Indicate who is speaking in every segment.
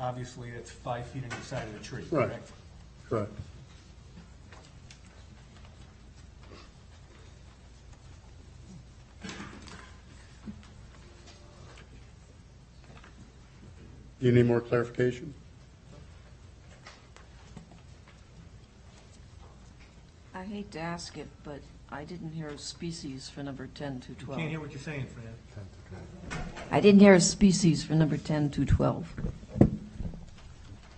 Speaker 1: obviously that's five feet on each side of the tree,
Speaker 2: Right.
Speaker 1: correct?
Speaker 2: Correct. Do you need more clarification?
Speaker 3: I hate to ask it, but I didn't hear a species for number 10 to
Speaker 1: You can't hear
Speaker 3: 12.
Speaker 1: what you're saying, Fran.
Speaker 3: I didn't hear a species for number 10 to 12.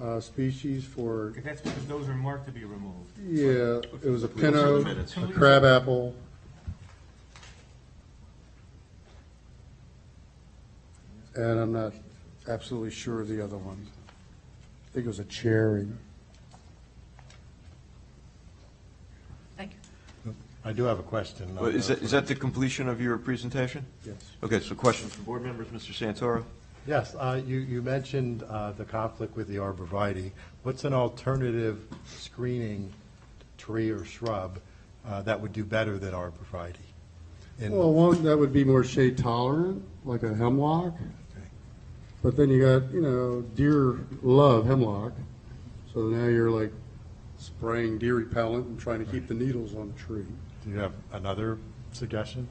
Speaker 2: Uh, Species for,
Speaker 1: Okay, That's because those are marked to be removed.
Speaker 2: yeah, it was a pin oak, a crab apple. And I'm not absolutely sure of the other one. I think it was a cherry.
Speaker 3: Thank you.
Speaker 4: I do have a question.
Speaker 5: Well, Is that, is that the completion of your presentation?
Speaker 2: Yes.
Speaker 5: Okay, so questions from board members, Mr. Santoro?
Speaker 4: Yes, uh, you, you mentioned uh, the conflict with the arborvitae. What's an alternative screening tree or shrub uh, that would do better than arborvitae? In-
Speaker 2: Well, one, that would be more shade tolerant, like a hemlock.
Speaker 4: Okay.
Speaker 2: But then you got, you know, deer love hemlock. So now you're like spraying deer repellent and trying to keep the needles on the tree.
Speaker 4: Do you have another suggestion?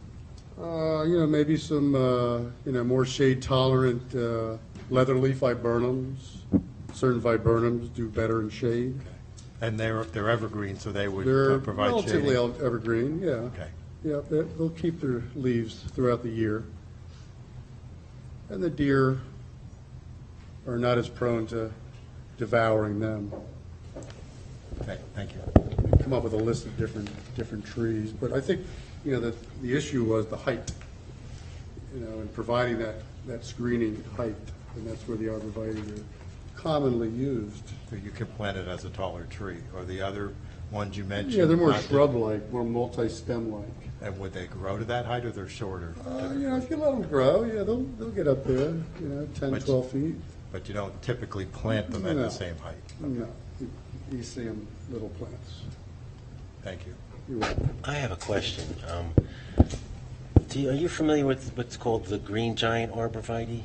Speaker 2: Uh, you know, maybe some, uh, you know, more shade tolerant, uh, leatherleaf viburnums. Certain viburnums do better in shade.
Speaker 4: And they're, they're evergreen, so they would
Speaker 2: They're
Speaker 4: uh, provide shading?
Speaker 2: relatively el- evergreen, yeah.
Speaker 4: Okay.
Speaker 2: Yeah, they- they'll keep their leaves throughout the year. And the deer are not as prone to devouring them.
Speaker 4: Okay, thank you.
Speaker 2: Come up with a list of different, different trees, but I think, you know, the, the issue was the height, you know, and providing that, that screening height, and that's where the arborvitae are commonly used.
Speaker 4: So you can plant it as a taller tree, or the other ones you mentioned?
Speaker 2: Yeah, they're more
Speaker 4: not the-
Speaker 2: shrub-like, more multi-stem-like.
Speaker 4: And would they grow to that height, or they're shorter?
Speaker 2: Uh, you know, if you let them grow, yeah, they'll, they'll get up there, you know, 10,
Speaker 4: But-
Speaker 2: 12 feet.
Speaker 4: But you don't typically plant them at
Speaker 2: No.
Speaker 4: the same height?
Speaker 2: No, you- you see them, little plants.
Speaker 4: Thank you.
Speaker 2: You're welcome.
Speaker 6: I have a question. Um, do you, are you familiar with what's called the green giant arborvitae?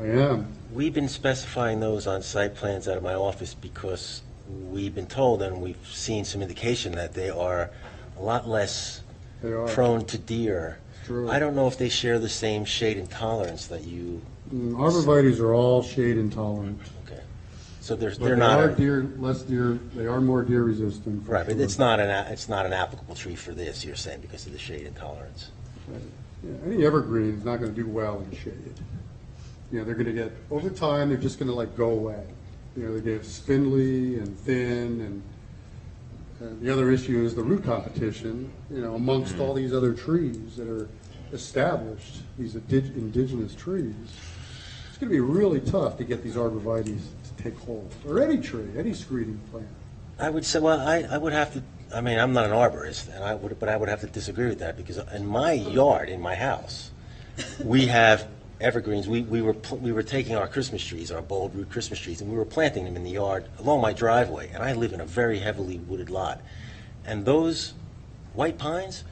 Speaker 2: I am.
Speaker 6: We've been specifying those on site plans out of my office because we've been told and we've seen some indication that they are a lot less
Speaker 2: They are.
Speaker 6: prone to deer.
Speaker 2: True.
Speaker 6: I don't know if they share the same shade and tolerance that you.
Speaker 2: Mm, Arborvitae's are all shade intolerant.
Speaker 6: Okay. So there's,
Speaker 2: but
Speaker 6: they're
Speaker 2: they
Speaker 6: not.
Speaker 2: are
Speaker 6: a-
Speaker 2: deer, less deer, they are more deer resistant. for
Speaker 6: right, but
Speaker 2: sure.
Speaker 6: it's not an a- it's not an applicable tree for this. You're saying because of the shade intolerance.
Speaker 2: Yeah, Any evergreen is not going to do well in shade. You know, they're going to get, over time, they're just going to like go away. You know, they get spindly and thin and, and the other issue is the root competition, you know, amongst all these other trees that are established, these indig- indigenous trees. It's going to be really tough to get these arborvitaes to take hold, or any tree, any screening plant.
Speaker 6: I would say, well, I, I would have to, I mean, I'm not an arborist, and I would, but I would have to disagree with that, because in my yard, in my house, we have evergreens, we, we were, pl- we were taking our Christmas trees, our bulb root Christmas trees, and we were planting them in the yard along my driveway, and I live in a very heavily wooded lot. And those white pines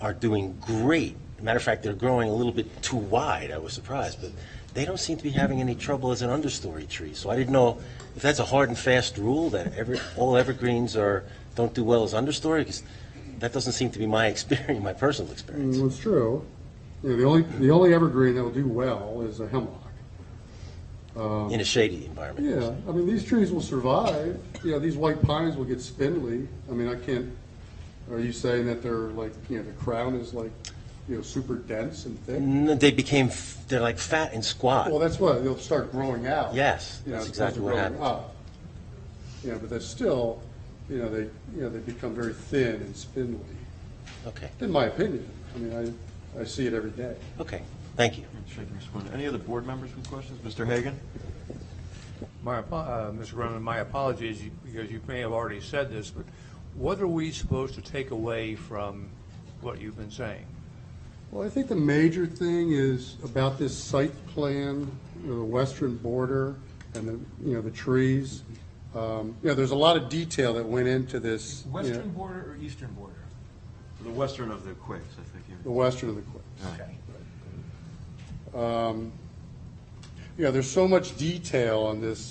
Speaker 6: are doing great. Matter of fact, they're growing a little bit too wide, I was surprised, but they don't seem to be having any trouble as an understory tree. So I didn't know if that's a hard and fast rule that ever, all evergreens are, don't do well as understory, because that doesn't seem to be my experience, my personal experience.
Speaker 2: Well, it's true. Yeah, the only, the only evergreen that will do well is a hemlock.
Speaker 6: in a shady environment.
Speaker 2: Yeah, I mean, these trees will survive, you know, these white pines will get spindly, I mean, I can't, are you saying that they're like, you know, the crown is like, you know, super dense and thick?
Speaker 6: No, They became, f- they're like fat and squat.
Speaker 2: Well, that's why they'll start growing out.
Speaker 6: Yes,
Speaker 2: you know,
Speaker 6: that's
Speaker 2: as opposed to
Speaker 6: exactly what
Speaker 2: growing
Speaker 6: happened.
Speaker 2: up. Yeah, but they're still, you know, they, you know, they become very thin and spindly,
Speaker 6: Okay,
Speaker 2: in my opinion, I mean, I, I see it every day.
Speaker 6: okay, thank you.
Speaker 5: Shaking his head. Any other board members with questions? Mr. Hagan?
Speaker 7: My, apo- uh, Mr. Grundman, my apologies, you- because you may have already said this, but what are we supposed to take away from what you've been saying?
Speaker 2: Well, I think the major thing is about this site plan, you know, the western border and the, you know, the trees. Um, You know, there's a lot of detail that went into this. you know,
Speaker 1: Western border or eastern border?
Speaker 5: The western of the quakes, I think
Speaker 2: The western of the Um, Quicks.
Speaker 1: Okay.
Speaker 2: You know, there's so much detail on this